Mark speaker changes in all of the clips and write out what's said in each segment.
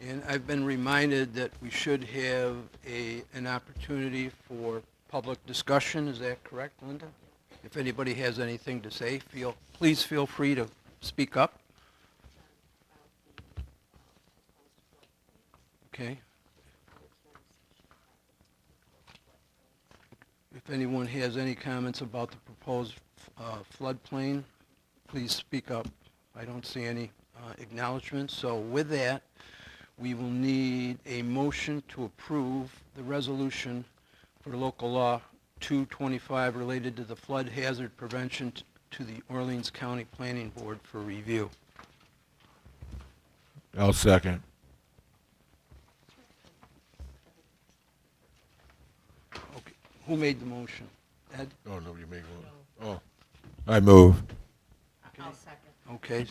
Speaker 1: And I've been reminded that we should have a, an opportunity for public discussion. Is that correct, Linda? If anybody has anything to say, feel, please feel free to speak up. Okay. If anyone has any comments about the proposed uh, floodplain, please speak up. I don't see any uh, acknowledgements. So with that, we will need a motion to approve the resolution for local law 225 related to the flood hazard prevention t- to the Orleans County Planning Board for review.
Speaker 2: I'll second.
Speaker 1: Okay. Who made the motion? Ed?
Speaker 2: Oh, nobody made one. Oh. I move.
Speaker 3: I'll second.
Speaker 1: Okay. s-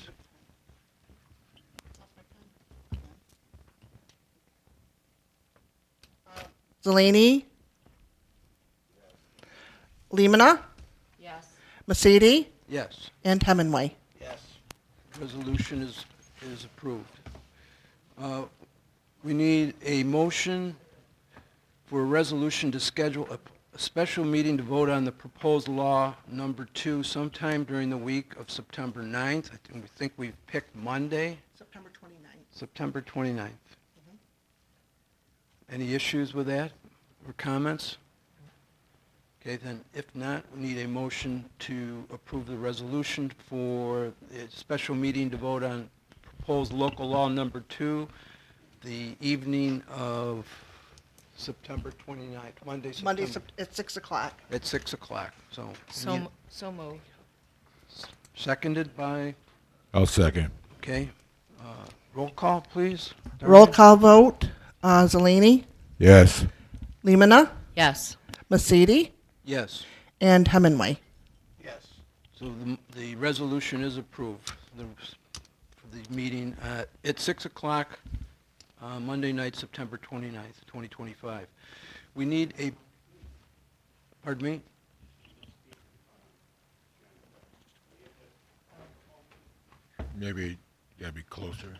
Speaker 4: Delaney. Lemina,
Speaker 3: Yes.
Speaker 4: Masidi,
Speaker 1: Yes.
Speaker 4: and Hemingway.
Speaker 1: Resolution is, is approved. Uh, We need a motion for a resolution to schedule a, a special meeting to vote on the proposed law number two sometime during the week of September 9th. I think- we think we've picked Monday,
Speaker 4: September 29th.
Speaker 1: September 29th. Any issues with that or comments? Okay, then if not, we need a motion to approve the resolution for a special meeting to vote on proposed local law number two, the evening of September 29th, Monday,
Speaker 4: Monday
Speaker 1: September,
Speaker 4: Sep- at 6 o'clock.
Speaker 1: at 6 o'clock. So,
Speaker 3: So,
Speaker 1: we
Speaker 3: m-
Speaker 1: need-
Speaker 3: so moved.
Speaker 1: seconded by,
Speaker 2: I'll second.
Speaker 1: okay, uh, roll call, please.
Speaker 4: Roll
Speaker 1: Darlene?
Speaker 4: call vote, uh, Zelini,
Speaker 2: Yes.
Speaker 4: Lemina,
Speaker 3: Yes.
Speaker 4: Masidi,
Speaker 1: Yes.
Speaker 4: and Hemingway.
Speaker 1: So the, the resolution is approved, the, for the meeting uh, at 6 o'clock, uh, Monday night, September 29th, 2025. We need a, pardon me?
Speaker 2: Maybe gotta be closer.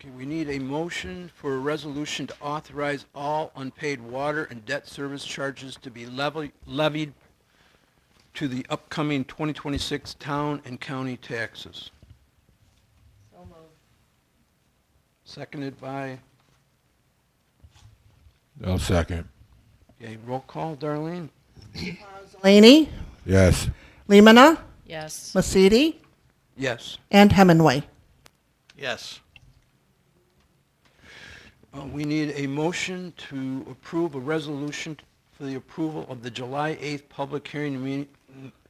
Speaker 1: Okay, we need a motion for a resolution to authorize all unpaid water and debt service charges to be levy- levied to the upcoming 2026 town and county taxes.
Speaker 3: So moved.
Speaker 1: Seconded by,
Speaker 2: I'll second.
Speaker 1: okay, roll call, Darlene?
Speaker 4: Zelini,
Speaker 2: Yes.
Speaker 4: Lemina,
Speaker 3: Yes.
Speaker 4: Masidi,
Speaker 1: Yes.
Speaker 4: and Hemingway.
Speaker 5: Yes.
Speaker 1: Uh, We need a motion to approve a resolution for the approval of the July 8th public hearing, me-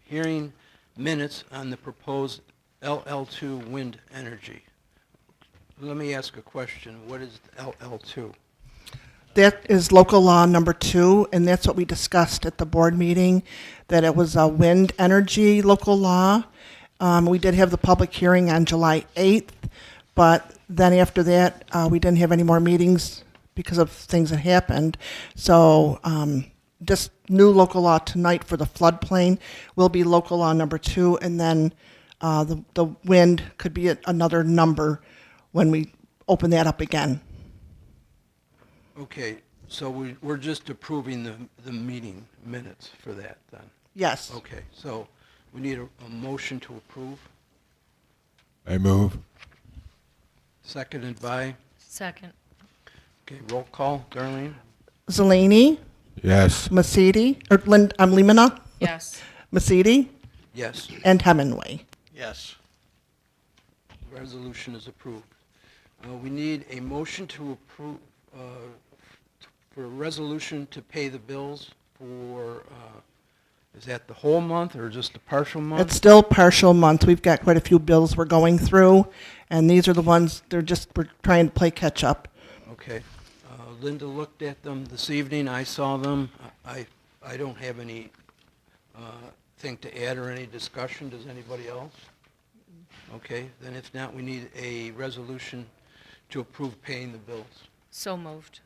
Speaker 1: hearing minutes on the proposed LL2 wind energy. Let me ask a question. What is LL2?
Speaker 4: That is local law number two, and that's what we discussed at the board meeting, that it was a wind energy local law. Um, we did have the public hearing on July 8th, but then after that, uh, we didn't have any more meetings because of things that happened. So, um, this new local law tonight for the floodplain will be local law number two, and then, uh, the, the wind could be at another number when we open that up again.
Speaker 1: Okay, so we- we're just approving the the meeting minutes for that, then?
Speaker 4: Yes.
Speaker 1: Okay, so we need a a motion to approve,
Speaker 2: I move.
Speaker 1: seconded by,
Speaker 3: Second.
Speaker 1: okay, roll call, Darlene?
Speaker 4: Zelini,
Speaker 2: Yes.
Speaker 4: Masidi, or Lind, um, Limina,
Speaker 3: Yes.
Speaker 4: Masidi,
Speaker 1: Yes.
Speaker 4: and Hemingway.
Speaker 5: Yes.
Speaker 1: Resolution is approved. Uh, We need a motion to approve, uh, t- for a resolution to pay the bills for, uh, is that the whole month or just the partial
Speaker 4: It's
Speaker 1: month?
Speaker 4: still partial month. We've got quite a few bills we're going through, and these are the ones, they're just, we're trying to play catch up.
Speaker 1: Okay. Uh, Linda looked at them this evening. I saw them. I, I don't have any uh, thing to add or any discussion. Does anybody else? Okay, then if not, we need a resolution to approve paying the bills.
Speaker 3: So moved.